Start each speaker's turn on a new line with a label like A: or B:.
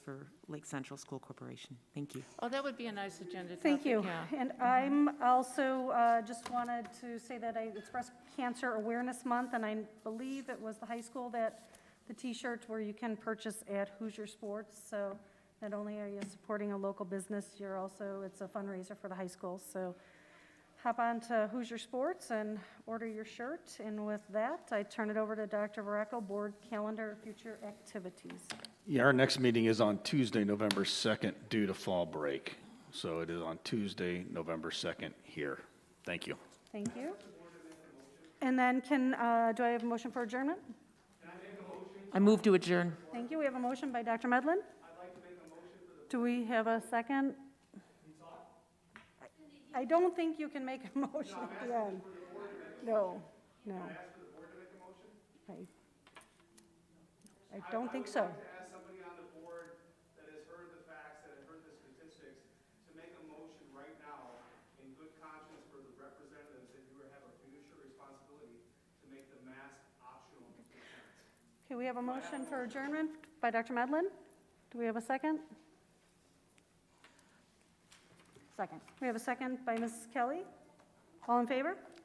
A: for Lake Central School Corporation. Thank you.
B: Oh, that would be a nice agenda topic.
C: Thank you.
B: yeah.
C: And I'm also, uh, just wanted to say that I, it's Breast Cancer Awareness Month, and I believe it was the high school that the T-shirts where you can purchase at Hoosier Sports, so not only are you supporting a local business, you're also, it's a fundraiser for the high school, so hop on to Hoosier Sports and order your shirt. And with that, I turn it over to Dr. Vareko, Board Calendar Future Activities.
D: Yeah, our next meeting is on Tuesday, November 2nd, due to fall break. So it is on Tuesday, November 2nd here. Thank you.
C: Thank you. And then can, uh, do I have a motion for adjournment?
A: I move to adjourn.
C: Thank you. We have a motion by Dr. Medlin. I'd like to make a motion for the. Do we have a second? I I don't think you can make a motion at the end. No, no. I- I don't think so.
E: ask somebody on the board that has heard the facts, that has heard the statistics, to make a motion right now in good conscience for the representatives that you have a fiduciary responsibility to make the mask optional.
C: Okay, we have a motion for adjournment by Dr. Medlin. Do we have a second? Second. We have a second by Ms. Kelly. All in favor?